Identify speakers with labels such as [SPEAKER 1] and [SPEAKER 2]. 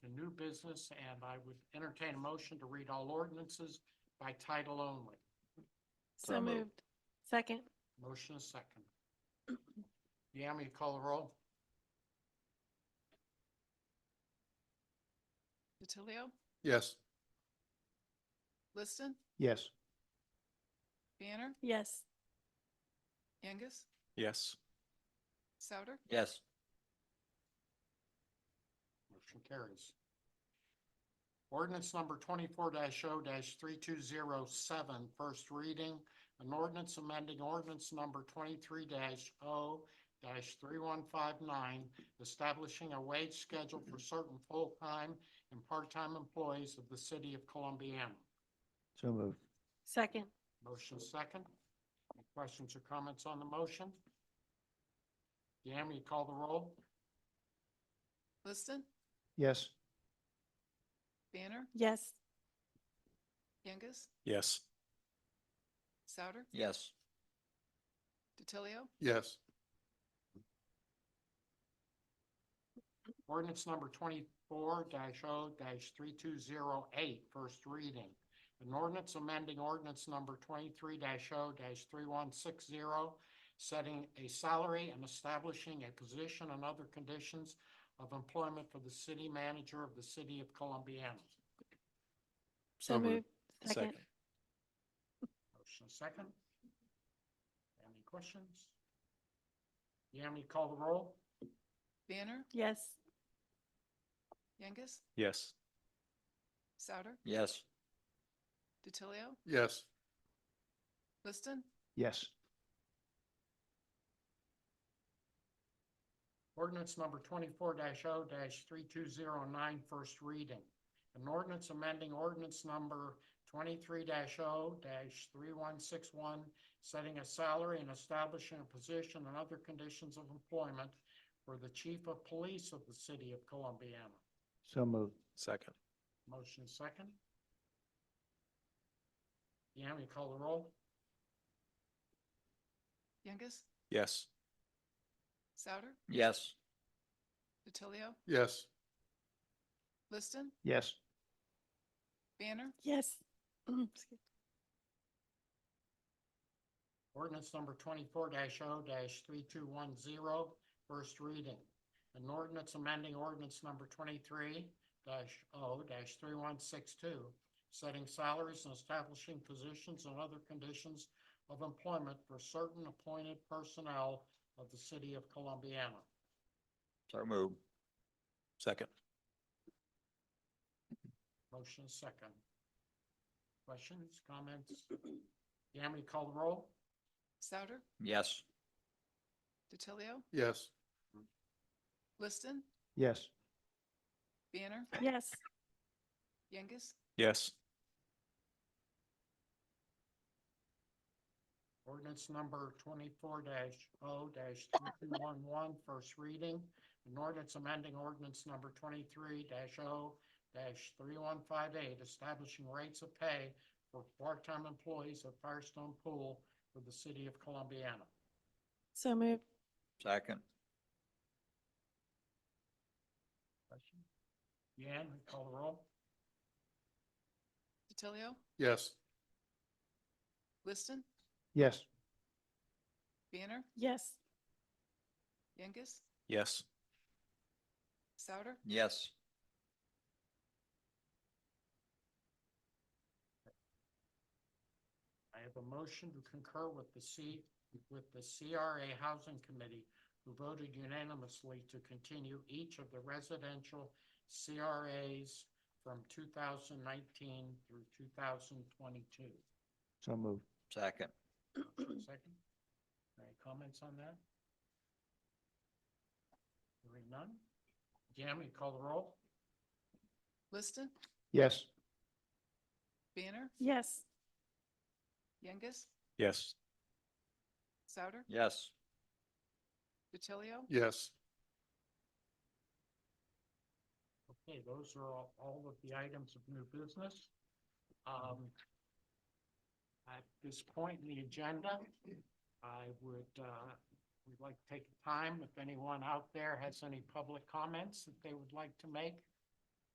[SPEAKER 1] business, and I would entertain a motion to read all ordinances by title only.
[SPEAKER 2] So moved. Second.
[SPEAKER 1] Motion is second. Yami, you call the roll?
[SPEAKER 3] DiTilio,
[SPEAKER 4] Yes.
[SPEAKER 3] Liston,
[SPEAKER 4] Yes.
[SPEAKER 3] Banner,
[SPEAKER 2] Yes.
[SPEAKER 3] Angus,
[SPEAKER 4] Yes.
[SPEAKER 3] Souter,
[SPEAKER 5] Yes.
[SPEAKER 1] Motion carries. Ordinance number twenty-four 0 three-two-zero-seven, first reading. An ordinance amending ordinance number twenty-three 0 three-one-five-nine, establishing a wage schedule for certain full-time and part-time employees of the city of Columbiana.
[SPEAKER 5] So moved.
[SPEAKER 2] Second.
[SPEAKER 1] Motion second. Any questions or comments on the motion? Yami, you call the roll?
[SPEAKER 3] Liston,
[SPEAKER 5] Yes.
[SPEAKER 3] Banner,
[SPEAKER 2] Yes.
[SPEAKER 3] Angus,
[SPEAKER 4] Yes.
[SPEAKER 3] Souter,
[SPEAKER 5] Yes.
[SPEAKER 3] DiTilio,
[SPEAKER 4] Yes.
[SPEAKER 1] Ordinance number twenty-four 0 three-two-zero-eight, first reading. An ordinance amending ordinance number twenty-three 0 three-one-six-zero, setting a salary and establishing a position and other conditions of employment for the city manager of the city of Columbiana.
[SPEAKER 2] So moved. Second.
[SPEAKER 1] Motion second. Any questions? Yami, call the roll?
[SPEAKER 3] Banner,
[SPEAKER 2] Yes.
[SPEAKER 3] Angus,
[SPEAKER 4] Yes.
[SPEAKER 3] Souter,
[SPEAKER 5] Yes.
[SPEAKER 3] DiTilio,
[SPEAKER 4] Yes.
[SPEAKER 3] Liston,
[SPEAKER 5] Yes.
[SPEAKER 1] Ordinance number twenty-four 0 three-two-zero-nine, first reading. An ordinance amending ordinance number twenty-three 0 three-one-six-one, setting a salary and establishing a position and other conditions of employment for the chief of police of the city of Columbiana.
[SPEAKER 5] So moved.
[SPEAKER 4] Second.
[SPEAKER 1] Motion second. Yami, call the roll?
[SPEAKER 3] Angus,
[SPEAKER 4] Yes.
[SPEAKER 3] Souter,
[SPEAKER 5] Yes.
[SPEAKER 3] DiTilio,
[SPEAKER 4] Yes.
[SPEAKER 3] Liston,
[SPEAKER 5] Yes.
[SPEAKER 3] Banner,
[SPEAKER 2] Yes. Excuse-
[SPEAKER 1] Ordinance number twenty-four 0 three-two-one-zero, first reading. An ordinance amending ordinance number twenty-three 0 three-one-six-two, setting salaries and establishing positions and other conditions of employment for certain appointed personnel of the city of Columbiana.
[SPEAKER 5] So moved.
[SPEAKER 4] Second.
[SPEAKER 1] Motion is second. Questions, comments? Yami, call the roll?
[SPEAKER 3] Souter,
[SPEAKER 5] Yes.
[SPEAKER 3] DiTilio,
[SPEAKER 4] Yes.
[SPEAKER 3] Liston,
[SPEAKER 5] Yes.
[SPEAKER 3] Banner,
[SPEAKER 2] Yes.
[SPEAKER 3] Angus,
[SPEAKER 4] Yes.
[SPEAKER 1] Ordinance number twenty-four 0 first reading. An ordinance amending ordinance number twenty-three 0 three-one-five-eight, establishing rates of pay for part-time employees of Firestone Pool for the city of Columbiana.
[SPEAKER 2] So moved.
[SPEAKER 5] Second.
[SPEAKER 1] Yan, call the roll?
[SPEAKER 3] DiTilio,
[SPEAKER 4] Yes.
[SPEAKER 3] Liston,
[SPEAKER 5] Yes.
[SPEAKER 3] Banner,
[SPEAKER 2] Yes.
[SPEAKER 3] Angus,
[SPEAKER 4] Yes.
[SPEAKER 3] Souter,
[SPEAKER 5] Yes.
[SPEAKER 1] I have a motion to concur with the C, with the CRA Housing Committee, who voted unanimously to continue each of the residential CRAs from two thousand nineteen through two thousand twenty-two.
[SPEAKER 5] So moved. Second.
[SPEAKER 1] Second, any comments on that? Hearing none? Yami, call the roll?
[SPEAKER 3] Liston,
[SPEAKER 5] Yes.
[SPEAKER 3] Banner,
[SPEAKER 2] Yes.
[SPEAKER 3] Angus,
[SPEAKER 4] Yes.
[SPEAKER 3] Souter,
[SPEAKER 5] Yes.
[SPEAKER 3] DiTilio,
[SPEAKER 4] Yes.
[SPEAKER 1] Okay, those are all, all of the items of new business. Um, at this point in the agenda, I would, uh, we'd like to take time, if anyone out there has any public comments that they would like to make,